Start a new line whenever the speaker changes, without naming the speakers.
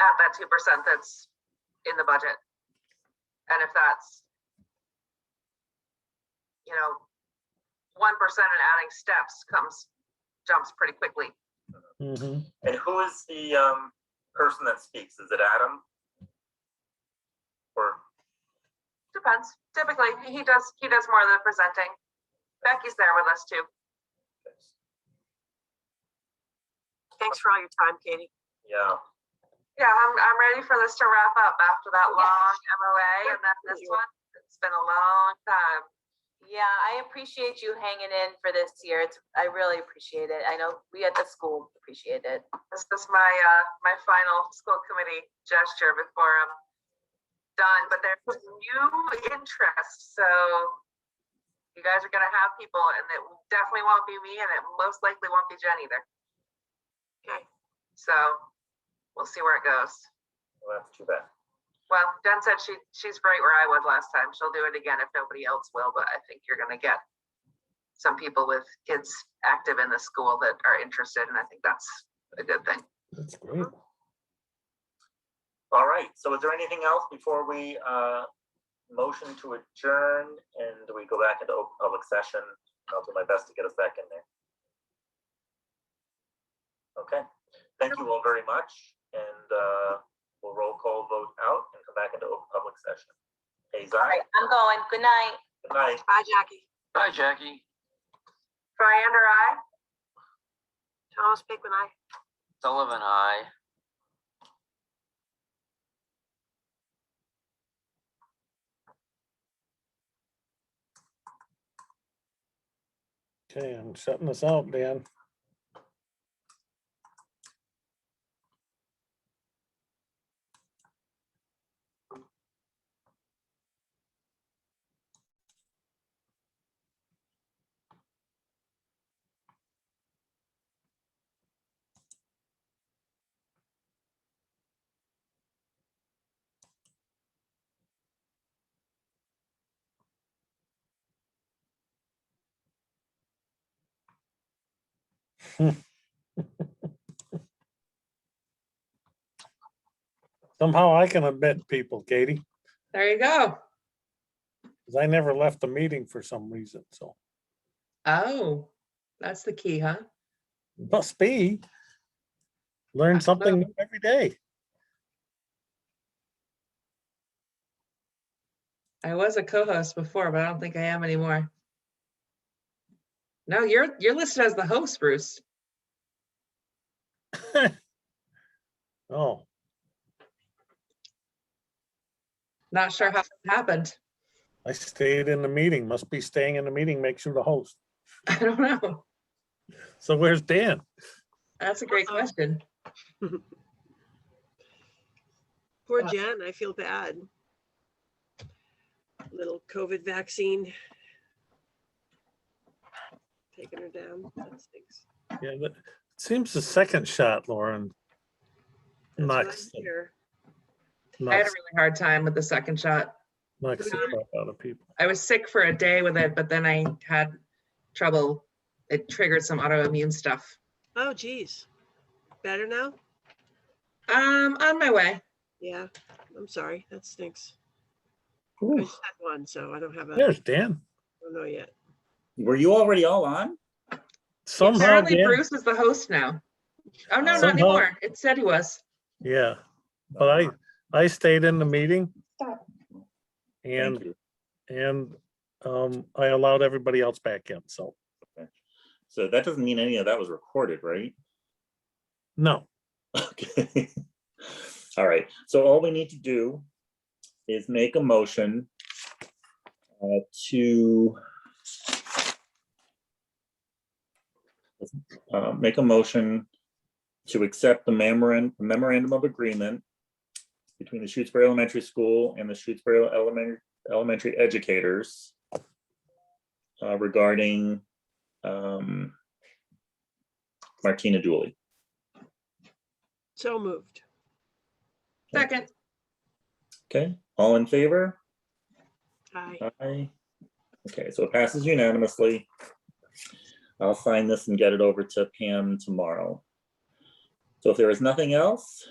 at that two percent that's in the budget. And if that's, you know, one percent and adding steps comes, jumps pretty quickly.
Mhm.
And who is the um, person that speaks? Is it Adam? Or,
Depends. Typically, he he does, he does more of the presenting. Becky's there with us too.
Thanks for all your time, Katie.
yeah,
Yeah, I'm, I'm ready for this to wrap up after that long MOA and then this one. It's been a long time.
Yeah, I appreciate you hanging in for this year. It's, I really appreciate it. I know we at the school appreciate it.
This is my, uh, my final school committee gesture before I'm done, but there's new interest, so you guys are gonna have people and it definitely won't be me and it most likely won't be Jen either.
Okay.
So we'll see where it goes.
well, that's too bad.
Well, Jen said she, she's right where I was last time. She'll do it again if nobody else will, but I think you're gonna get some people with kids active in the school that are interested, and I think that's a good thing.
That's great.
All right, so is there anything else before we uh, motion to adjourn and we go back into open public session? I'll do my best to get a second there. Okay, thank you all very much and uh, we'll roll call vote out and come back into open public session. Hayes,
All
aye.
right, I'm going. Good night.
Good night.
Bye, Jackie.
Hi, Jackie.
Brian or I?
Thomas Pickman, I.
Sullivan, hi.
Okay, I'm shutting this out, Dan. Somehow I can admit people, Katie,
There you go.
because I never left the meeting for some reason, so
Oh, that's the key, huh?
must be. Learn something new every day.
I was a co-host before, but I don't think I am anymore. No, you're you're listed as the host, Bruce.
Oh,
Not sure how it happened.
I stayed in the meeting, must be staying in the meeting, makes you the host.
I don't know.
So where's Dan?
That's a great
Uh-oh.
question.
Poor
Uh,
Jen, I feel bad. Little COVID vaccine. Taking her down. That stinks.
Yeah, but it seems the second shot, Lauren.
That's what
Knocks,
I hear.
I had a
knocks,
really hard time with the second shot.
knocks the crap out of people.
I was sick for a day with it, but then I had trouble. It triggered some autoimmune stuff.
Oh, geez. Better now?
Um, on my way.
Yeah, I'm sorry. That stinks. I
Ooh,
just had one, so I don't have a, I
There's Dan.
don't know yet.
Were you already all on?
Somehow,
Apparently
Dan.
Bruce is the host now. Oh, no,
Somehow-
not anymore. It said he was.
Yeah, but I, I stayed in the meeting. And,
you.
and, um, I allowed everybody else back in, so,
So that doesn't mean any of that was recorded, right?
no,
Okay. All right, so all we need to do is make a motion uh, to uh, make a motion to accept the memorandum, memorandum of agreement between the Shutesbury Elementary School and the Shutesbury Elementary, Elementary Educators uh, regarding um, Martina Dooley.
So moved.
Second.
Okay, all in favor?
Hi.
Aye. Okay, so it passes unanimously. I'll sign this and get it over to Pam tomorrow. So if there is nothing else,